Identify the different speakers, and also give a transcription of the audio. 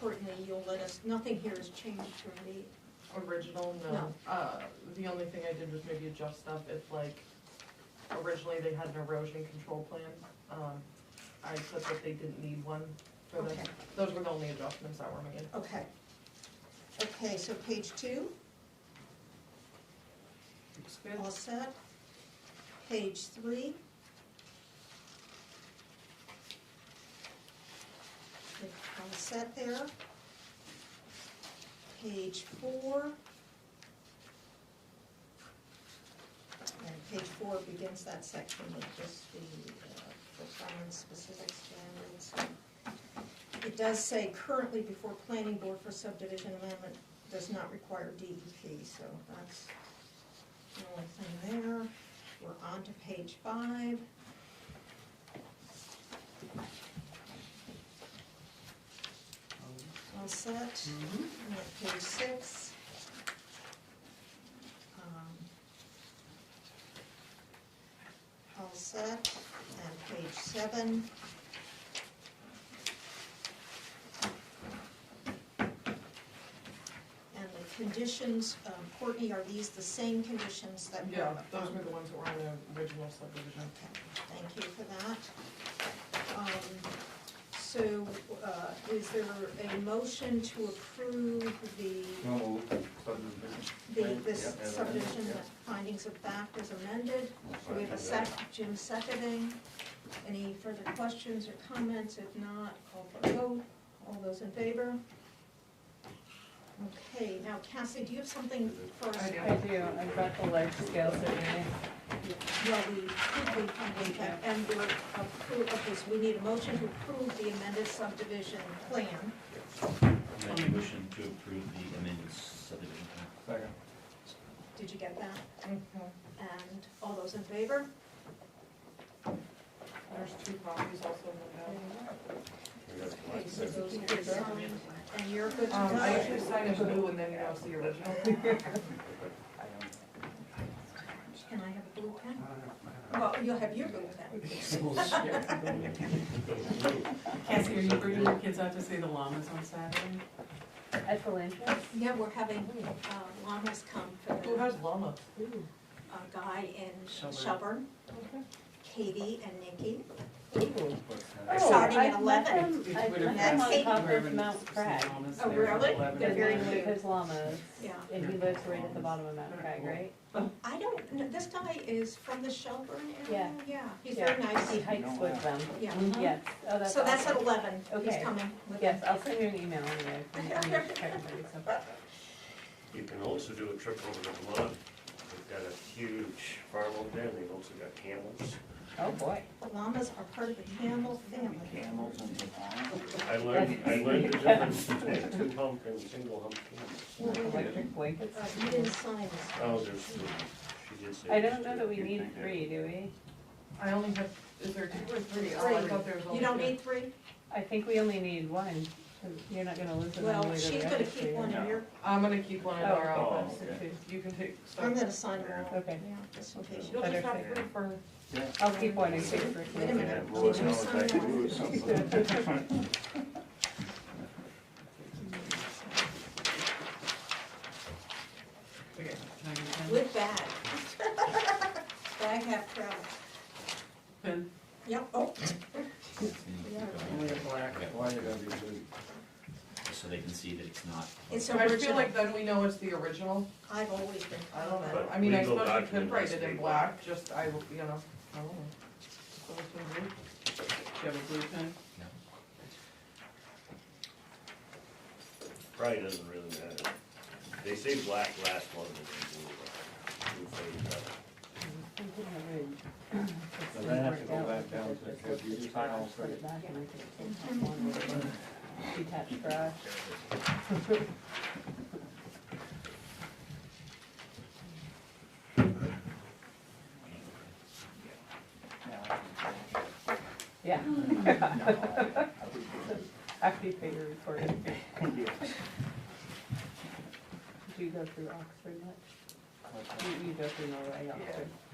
Speaker 1: will Um, let us, nothing here is changed from the
Speaker 2: Original, no.
Speaker 1: No.
Speaker 2: Uh, the only thing I did was maybe adjust stuff if like, originally they had an erosion control plan. Um, I said that they didn't need one for the,
Speaker 1: Okay.
Speaker 2: those were the only adjustments that were made.
Speaker 1: Okay. Okay, so page two,
Speaker 2: Looks good.
Speaker 1: all set. Page three. All set there. Page four. And page four begins that section with just the uh, performance specific standards. It does say currently before planning board for subdivision amendment does not require DEP, so that's the only thing there. We're on to page five. All set?
Speaker 2: Mm-hmm.
Speaker 1: And at page six. um, All set, and page seven. And the conditions, um, Courtney, are these the same conditions that were?
Speaker 2: Yeah, those
Speaker 1: um,
Speaker 2: were the ones that were on the original subdivision.
Speaker 1: Okay, thank you for that. Um, So uh, is there a motion to approve the,
Speaker 3: No,
Speaker 1: the this subdivision that findings of fact is amended? Do we have a sec, Jim seconding? Any further questions or comments? If not, call for a vote. All those in favor? Okay, now Cassie, do you have something for us?
Speaker 2: I do.
Speaker 4: I do, I've got the large scale survey.
Speaker 1: Well, we did the finding that, and we're appro okay, so we need a motion to approve the amended subdivision plan.
Speaker 5: Make a motion to approve the amended subdivision plan.
Speaker 3: Second.
Speaker 1: Did you get that?
Speaker 2: Mhm.
Speaker 1: And all those in favor?
Speaker 2: There's two copies also in
Speaker 1: Okay, so those are signed, and you're good
Speaker 2: the
Speaker 1: to
Speaker 2: back. Um, I
Speaker 1: go.
Speaker 2: usually sign in blue and then that was the original.
Speaker 1: Can I have a blue pen? Well, you'll have your blue pen.
Speaker 6: Cassie, are you bringing your kids out to see the llamas on Saturday?
Speaker 4: At the land trust?
Speaker 1: Yeah, we're having uh, llamas come
Speaker 2: Who
Speaker 1: for the,
Speaker 2: has llama?
Speaker 1: a guy in
Speaker 5: Shelburne.
Speaker 1: Shelburne, Katie and Nikki.
Speaker 3: uh,
Speaker 4: Oh,
Speaker 1: Starting at
Speaker 4: I've met
Speaker 1: 11.
Speaker 4: them- I've met them on
Speaker 1: That's-
Speaker 4: top of Mount Crag.
Speaker 1: Oh, really? They're
Speaker 4: There's
Speaker 1: very
Speaker 4: llamas-
Speaker 1: cute.
Speaker 4: There's llamas,
Speaker 1: Yeah.
Speaker 4: and he lives right at the bottom of Mount Crag, right?
Speaker 1: I don't, kn- this guy is from the Shelburne area? Yeah. he's
Speaker 4: Yeah.
Speaker 1: very nice.
Speaker 4: He hikes with them.
Speaker 1: Yeah.
Speaker 4: Yes, oh, that's
Speaker 1: Uh-huh. So that's at
Speaker 4: awesome.
Speaker 1: eleven, he's
Speaker 4: Okay.
Speaker 1: coming. with
Speaker 4: Yes,
Speaker 1: him.
Speaker 4: I'll send you an email anyway. if you- if you check with her, so.
Speaker 7: You can also do a trip over to Vermont. They've got a huge farm over there, and they've also got camels.
Speaker 4: Oh, boy.
Speaker 1: The llamas are part of the camel family.
Speaker 3: Camels and
Speaker 7: I learned, I learned the difference between two hump and single hump
Speaker 4: Like
Speaker 7: camels.
Speaker 4: Electric blankets.
Speaker 1: Uh, You didn't sign this.
Speaker 7: Oh, there's three. She did say.
Speaker 4: I
Speaker 7: there's
Speaker 4: don't know
Speaker 7: two.
Speaker 4: that we need three, do we?
Speaker 2: I only have, is there two or three? Oh, I thought there was only
Speaker 1: You don't
Speaker 2: two.
Speaker 1: need three?
Speaker 4: I think we only need one, 'cause you're not gonna lose it one
Speaker 1: Well,
Speaker 4: way or the
Speaker 1: she's
Speaker 4: other,
Speaker 1: gonna
Speaker 4: so
Speaker 1: keep
Speaker 4: you're
Speaker 1: one
Speaker 4: not-
Speaker 1: in your,
Speaker 2: I'm gonna keep one in our
Speaker 4: Oh,
Speaker 2: office.
Speaker 4: so two.
Speaker 2: You can take, so.
Speaker 1: I'm gonna sign them all.
Speaker 4: Okay.
Speaker 1: Yeah, just in case.
Speaker 2: You'll just have
Speaker 4: Better.
Speaker 2: three for.
Speaker 4: I'll keep one in case we're.
Speaker 1: Wait a minute,
Speaker 3: Yeah,
Speaker 1: did you
Speaker 3: Roy,
Speaker 1: sign
Speaker 3: I was
Speaker 1: that?
Speaker 6: Okay, can I get a pen?
Speaker 1: With bag. Bag half travel.
Speaker 6: Pen?
Speaker 1: Yep, oh,
Speaker 3: Only a black. Why you gotta be blue?
Speaker 5: So they can see that it's not.
Speaker 1: it's
Speaker 2: So I feel
Speaker 1: original.
Speaker 2: like then we know it's the original.
Speaker 1: I've always been.
Speaker 2: I don't know.
Speaker 7: But
Speaker 2: I mean, I
Speaker 7: legal
Speaker 2: suppose we could
Speaker 7: document
Speaker 2: write
Speaker 7: has
Speaker 2: it
Speaker 7: to
Speaker 2: in
Speaker 7: be
Speaker 2: black, just, I, will- you know, I don't know. So it's in blue.
Speaker 6: Do you have a blue pen?
Speaker 7: Probably doesn't really matter. They say black lasts longer than blue. Blue fades out.
Speaker 3: So then I have to go back down to, because you just sign all three.
Speaker 4: Detached garage. Yeah, after you pay your report. Did you go through Oxford much? You, you go through Norway, Oxford?